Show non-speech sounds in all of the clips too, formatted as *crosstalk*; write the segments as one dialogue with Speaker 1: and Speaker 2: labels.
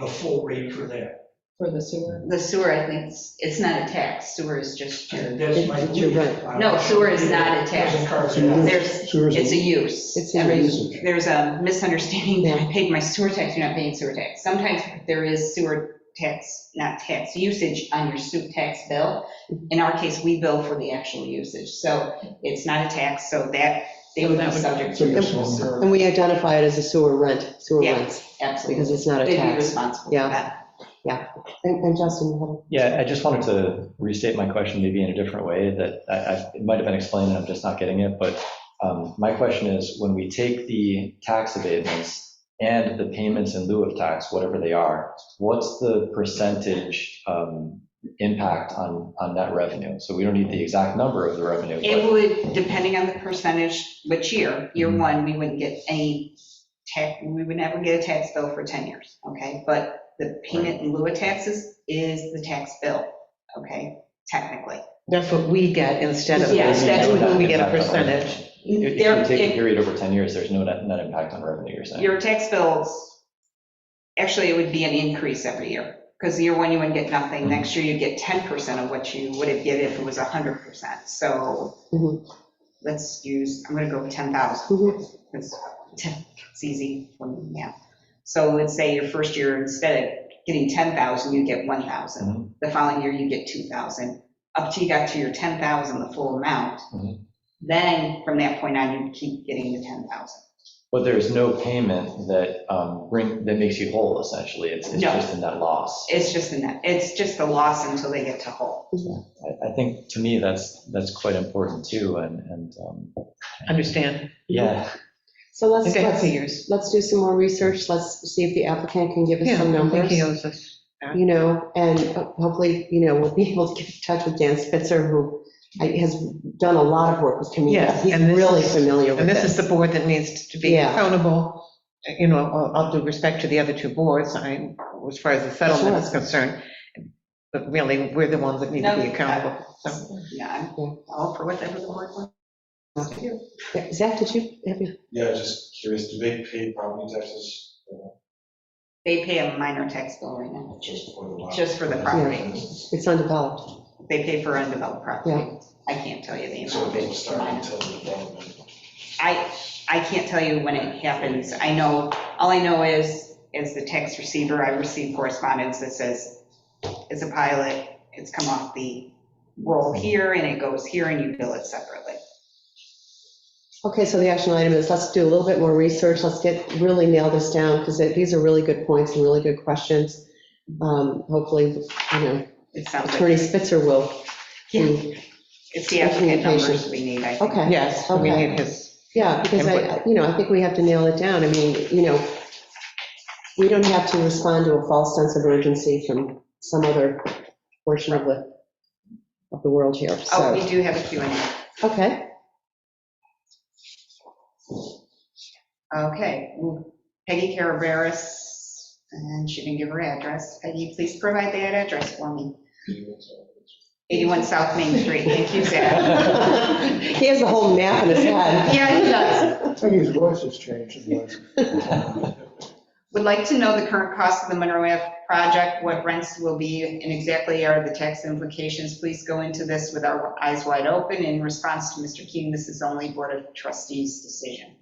Speaker 1: the full rate for that.
Speaker 2: for the sewer.
Speaker 3: The sewer, I think, it's- it's not a tax, sewer is just your,
Speaker 1: That's my
Speaker 4: It's your
Speaker 1: belief.
Speaker 4: right.
Speaker 3: No, sewer is not a tax.
Speaker 1: Doesn't carve
Speaker 4: Sewer.
Speaker 1: it out.
Speaker 3: there's,
Speaker 4: Sewer is-
Speaker 3: it's a use.
Speaker 4: It's a
Speaker 3: Every-
Speaker 4: usage.
Speaker 3: There's a misunderstanding that I paid my sewer tax, you're not paying sewer tax. Sometimes there is sewer tax, not tax, usage on your sewer tax bill. In our case, we bill for the actual usage, so it's not a tax, so that, they would be subject to your sewer,
Speaker 4: And we identify it as a sewer rent, sewer
Speaker 3: Yeah.
Speaker 4: rents,
Speaker 3: absolutely.
Speaker 4: because it's not a
Speaker 3: They'd be
Speaker 4: tax.
Speaker 3: responsible for
Speaker 4: Yeah.
Speaker 3: that.
Speaker 4: And and Justin, you have a-
Speaker 5: Yeah, I just wanted to restate my question maybe in a different way that I, I- it might have been explained and I'm just not getting it, but um, my question is, when we take the tax abatements and the payments in lieu of tax, whatever they are, what's the percentage um, impact on, on net revenue? So we don't need the exact number of the revenue. but-
Speaker 3: It would, depending on the percentage, which year, year
Speaker 5: Mhm.
Speaker 3: one, we wouldn't get any tax, we would never get a tax bill for 10 years, okay? But the payment in lieu of taxes is the tax bill, okay, technically.
Speaker 6: That's what we get instead of,
Speaker 3: Yes, that's
Speaker 6: that's when we get a
Speaker 5: Impact on revenue.
Speaker 6: percentage.
Speaker 5: If if
Speaker 3: There-
Speaker 5: you take a
Speaker 3: it-
Speaker 5: period over 10 years, there's no net, net impact on revenue, you're saying?
Speaker 3: Your tax bills, actually, it would be an increase every year, because year one, you wouldn't get nothing.
Speaker 5: Mhm.
Speaker 3: Next year, you'd get 10% of what you would have given if it was 100%. So
Speaker 5: Mm-hmm.
Speaker 4: Mhm.
Speaker 3: let's use, I'm going to go with 10,000.
Speaker 4: Mhm.
Speaker 3: It's it's easy for me, yeah. So let's say your first year, instead of getting 10,000, you get 1,000. The following year, you get 2,000. Up till you got to your 10,000, the full amount.
Speaker 5: Mhm.
Speaker 3: Then from that point on, you keep getting the 10,000.
Speaker 5: But there's no payment that um, bring, that makes you whole essentially. It's it's
Speaker 3: No.
Speaker 5: just a net loss.
Speaker 3: It's just a net, it's just the loss until they get to whole.
Speaker 5: I, I think to me, that's, that's quite important too, and, and, um,
Speaker 6: Understand.
Speaker 5: yeah.
Speaker 4: So let's,
Speaker 6: Okay,
Speaker 4: let's,
Speaker 6: happy years.
Speaker 4: let's do some more research, let's see if the applicant can give us
Speaker 6: Yeah,
Speaker 4: some
Speaker 6: I think
Speaker 4: numbers,
Speaker 6: he owes us.
Speaker 4: you know, and hopefully, you know, we'll be able to get in touch with Dan Spitzer, who has done a lot of work with communities.
Speaker 6: Yes,
Speaker 4: He's
Speaker 6: and this
Speaker 4: really
Speaker 6: is-
Speaker 4: familiar with
Speaker 6: And this is the
Speaker 4: this.
Speaker 6: board that needs to be
Speaker 4: Yeah.
Speaker 6: accountable, you know, all- all due respect to the other two boards, I, as far as the settlement is concerned. But really, we're the ones that need to be
Speaker 3: No, I-
Speaker 6: accountable, so.
Speaker 3: Yeah, I'm all for whatever the board wants to do.
Speaker 4: Zach, did you, have you,
Speaker 7: Yeah, just curious, do they pay property taxes uh,
Speaker 3: They pay a minor tax bill right now.
Speaker 7: just for the lot?
Speaker 3: Just for the property.
Speaker 4: it's undeveloped.
Speaker 3: They pay for undeveloped property.
Speaker 4: Yeah.
Speaker 3: I can't tell you the
Speaker 7: So it
Speaker 3: amount.
Speaker 7: doesn't
Speaker 3: It's
Speaker 7: start
Speaker 3: minor.
Speaker 7: until the development.
Speaker 3: I, I can't tell you when it happens. I know, all I know is, as the tax receiver, I receive correspondence that says, it's a pilot, it's come off the roll here, and it goes here, and you bill it separately.
Speaker 4: Okay, so the action item is, let's do a little bit more research, let's get, really nail this down, because these are really good points and really good questions. Um, Hopefully, you know,
Speaker 3: It sounds like,
Speaker 4: Attorney Spitzer will.
Speaker 3: Yeah. it's the applicant numbers we need, I think.
Speaker 4: Okay.
Speaker 6: Yes, we
Speaker 4: Okay.
Speaker 6: need his,
Speaker 4: Yeah, because I, you know, I think we have to nail it down. I mean, you know, we don't have to respond to a false sense of urgency from some other portion of the, of the world here,
Speaker 3: Oh, we
Speaker 4: so,
Speaker 3: do have a Q and A.
Speaker 4: okay. *laughs*
Speaker 3: Okay, Peggy Carabaris, and she didn't give her address. Peggy, please provide that address for me. 81 South Main Street, thank you, Zach.
Speaker 4: He has the whole map in his head.
Speaker 3: Yeah, *laughs* he does.
Speaker 8: I think his voice has changed. his voice.
Speaker 3: *laughs* Would like to know the current cost of the Monroe Ave project, what rents will be, and exactly are the tax implications. Please go into this with our eyes wide open. In response to Mr. Keating, this is only Board of Trustees decision.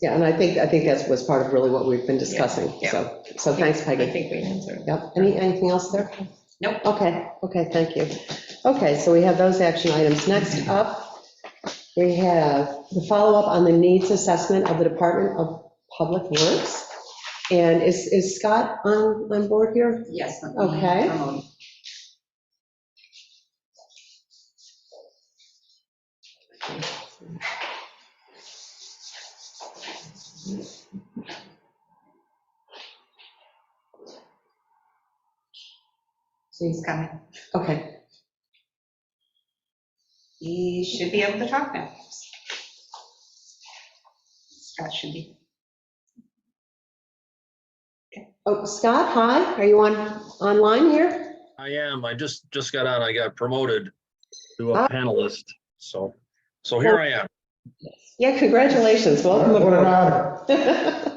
Speaker 4: Yeah, and I think, I think that was part of really what we've been discussing,
Speaker 6: Yeah,
Speaker 4: so, so thanks,
Speaker 6: I
Speaker 4: Peggy.
Speaker 6: think we answered.
Speaker 4: Yep, any, anything else there?
Speaker 3: Nope.
Speaker 4: Okay, okay, thank you. Okay, so we have those action items. Next up, we have the follow-up on the needs assessment of the Department of Public Works. And is, is Scott on, on board here?
Speaker 3: Yes. let me
Speaker 4: Okay.
Speaker 3: promote. He's coming.
Speaker 4: Okay,
Speaker 3: He should be able to talk now. Scott should be.
Speaker 4: oh, Scott, hi, are you on, online here?
Speaker 9: I am. I just, just got on. I got promoted to
Speaker 4: Ah.
Speaker 9: a panelist. So, so here I am.
Speaker 4: Yeah, congratulations, welcome
Speaker 8: What an
Speaker 4: aboard. *laughs*
Speaker 8: honor.